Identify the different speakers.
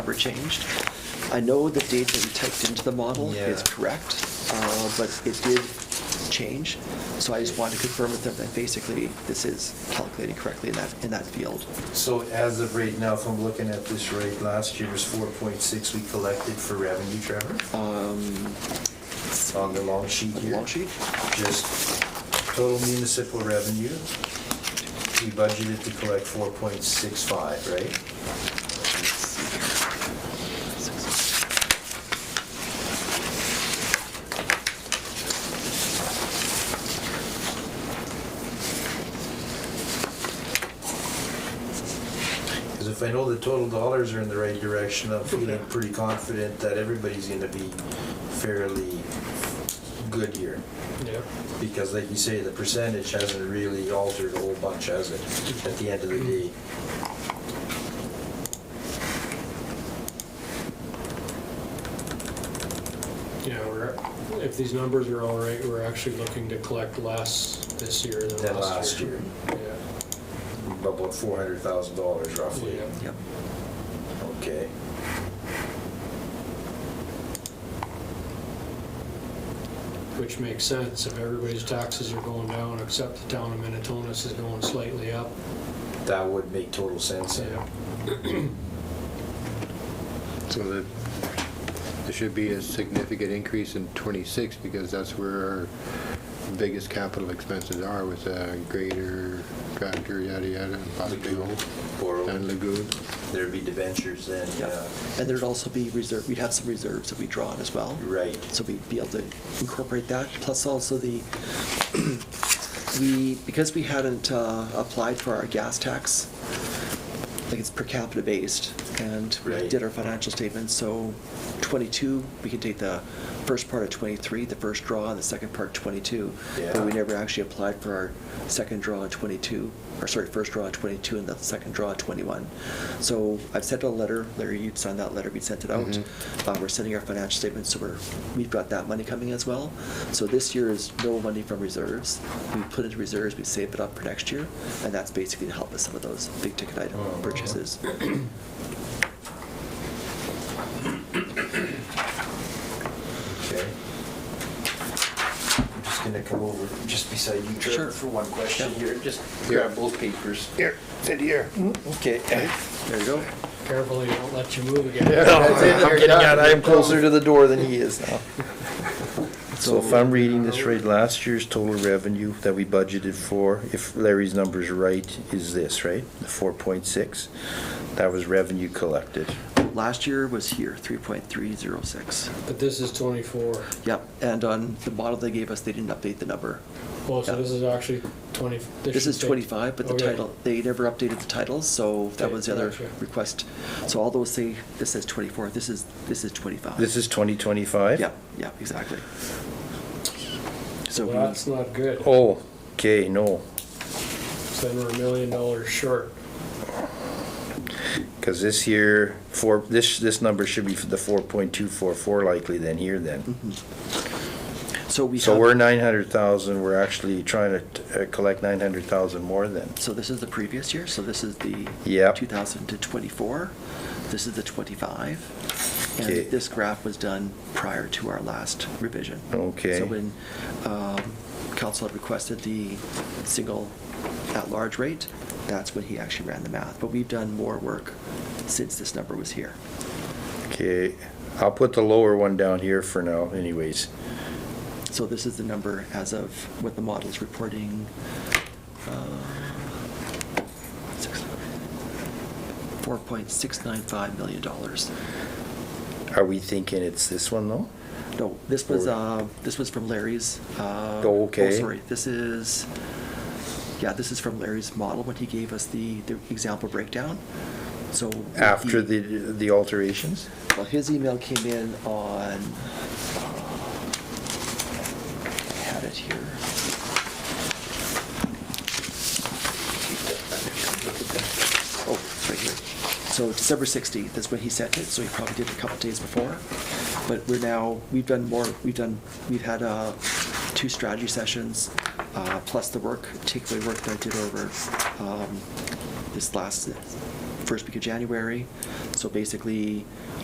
Speaker 1: were changed. I know the date that we typed into the model is
Speaker 2: Yeah.
Speaker 1: correct, uh, but it did change. So I just wanted to confirm with them that basically this is calculated correctly in that, in that field.
Speaker 2: So as of right now, if I'm looking at this right, last year was 4.6 we collected for revenue, Trevor?
Speaker 1: Um,
Speaker 2: On the long sheet here.
Speaker 1: Long sheet?
Speaker 2: Just total municipal revenue. We budgeted to collect 4.65, right? Because if I know the total dollars are in the right direction, I'm feeling pretty confident that everybody's going to be fairly good here.
Speaker 3: Yeah.
Speaker 2: Because like you say, the percentage hasn't really altered a whole bunch, has it, at the end of the day?
Speaker 3: Yeah, we're, if these numbers are all right, we're actually looking to collect less this year
Speaker 2: Than
Speaker 3: than
Speaker 2: last
Speaker 3: last year.
Speaker 2: year.
Speaker 3: Yeah.
Speaker 2: About four hundred thousand dollars roughly.
Speaker 3: Yeah.
Speaker 1: Yep.
Speaker 2: Okay.
Speaker 3: Which makes sense, if everybody's taxes are going down, except the town of Minnetonka's is going slightly up.
Speaker 2: That would make total sense. then.
Speaker 3: Yeah.
Speaker 4: So that, there should be a significant increase in '26, because that's where our biggest capital expenses are, with a grader, tractor, yada, yada, and possibly
Speaker 2: Lagoon.
Speaker 4: all- and
Speaker 2: Borrow.
Speaker 4: lagoon.
Speaker 2: There'd be debentures then,
Speaker 1: Yeah,
Speaker 2: yeah.
Speaker 1: and there'd also be reserve, we'd have some reserves that we draw on as well.
Speaker 2: Right.
Speaker 1: So we'd be able to incorporate that, plus also the, we, because we hadn't uh, applied for our gas tax, like it's per capita based, and we
Speaker 2: Right.
Speaker 1: did our financial statements, so twenty-two, we can take the first part of twenty-three, the first draw, and the second part twenty-two. But we
Speaker 2: Yeah.
Speaker 1: never actually applied for our second draw in twenty-two, or sorry, first draw in twenty-two and the second draw in twenty-one. So I've sent a letter, Larry, you'd signed that letter, we sent it out.
Speaker 4: Mhm.
Speaker 2: Mm-hmm.
Speaker 1: Uh, we're sending our financial statements, so we're, we've got that money coming as well. So this year is no money from reserves. We put into reserves, we save it up for next year, and that's basically to help with some of those big ticket item
Speaker 2: Mhm.
Speaker 1: purchases.
Speaker 2: Okay. I'm just gonna come over just beside you,
Speaker 1: Sure.
Speaker 2: Trevor, for one question
Speaker 1: Yeah.
Speaker 2: here. Just
Speaker 4: Yeah.
Speaker 2: grab both papers.
Speaker 4: Here, sit here.
Speaker 2: Okay.
Speaker 1: There you go.
Speaker 3: Carefully, don't let you move again.
Speaker 2: I'm getting out, I am closer to the door than he is now. So if I'm reading this right, last year's total revenue that we budgeted for, if Larry's number's right, is this, right? The four point six, that was revenue collected.
Speaker 1: Last year was here, three point three zero six.
Speaker 3: But this is 24.
Speaker 1: Yep, and on the model they gave us, they didn't update the number.
Speaker 3: Well, so
Speaker 1: Yeah.
Speaker 3: this is actually 20.
Speaker 1: This
Speaker 3: should
Speaker 1: is
Speaker 3: take-
Speaker 1: twenty-five, but the
Speaker 3: Okay.
Speaker 1: title, they never updated the titles, so that
Speaker 3: Okay,
Speaker 1: was the other
Speaker 3: gotcha.
Speaker 1: request. So all those say, this says twenty-four, this is, this is twenty-five.
Speaker 2: This is twenty twenty-five?
Speaker 1: Yeah, yeah, exactly. So
Speaker 3: Well,
Speaker 1: we,
Speaker 3: that's not good.
Speaker 2: Oh, okay, no,
Speaker 3: So Then we're a million dollars short.
Speaker 2: because this year, four, this, this number should be the four point two four four likely than here then.
Speaker 1: mhm. so Mm-hmm. we
Speaker 2: So
Speaker 1: have-
Speaker 2: we're nine hundred thousand, we're actually trying to uh, collect nine hundred thousand more then.
Speaker 1: So this is the previous year, so this is the
Speaker 2: Yep.
Speaker 1: 2000 to 24. This is the 25.
Speaker 2: Okay.
Speaker 1: And this graph was done prior to our last revision.
Speaker 2: Okay.
Speaker 1: So when um, council had requested the single at-large rate, that's when he actually ran the math. But we've done more work since this number was here.
Speaker 2: Okay, I'll put the lower one down here for now anyways.
Speaker 1: So this is the number as of what the model is reporting. uh, six- $4.695 million.
Speaker 2: Are we thinking it's this one though?
Speaker 1: No, this was,
Speaker 2: Or-
Speaker 1: uh, this was from Larry's. uh,
Speaker 2: Oh, okay.
Speaker 1: Sorry, this is, yeah, this is from Larry's model when he gave us the, the example breakdown. So.
Speaker 2: After
Speaker 1: he-
Speaker 2: the, the alterations?
Speaker 1: well, his email came in on, uh, I had it here. Oh, it's right here. So December 16th is when he sent it, so he probably did it a couple days before. But we're now, we've done more, we've done, we've had uh, two strategy sessions, uh, plus the work, takeaway work that I did over um, this last, first week of January. So basically,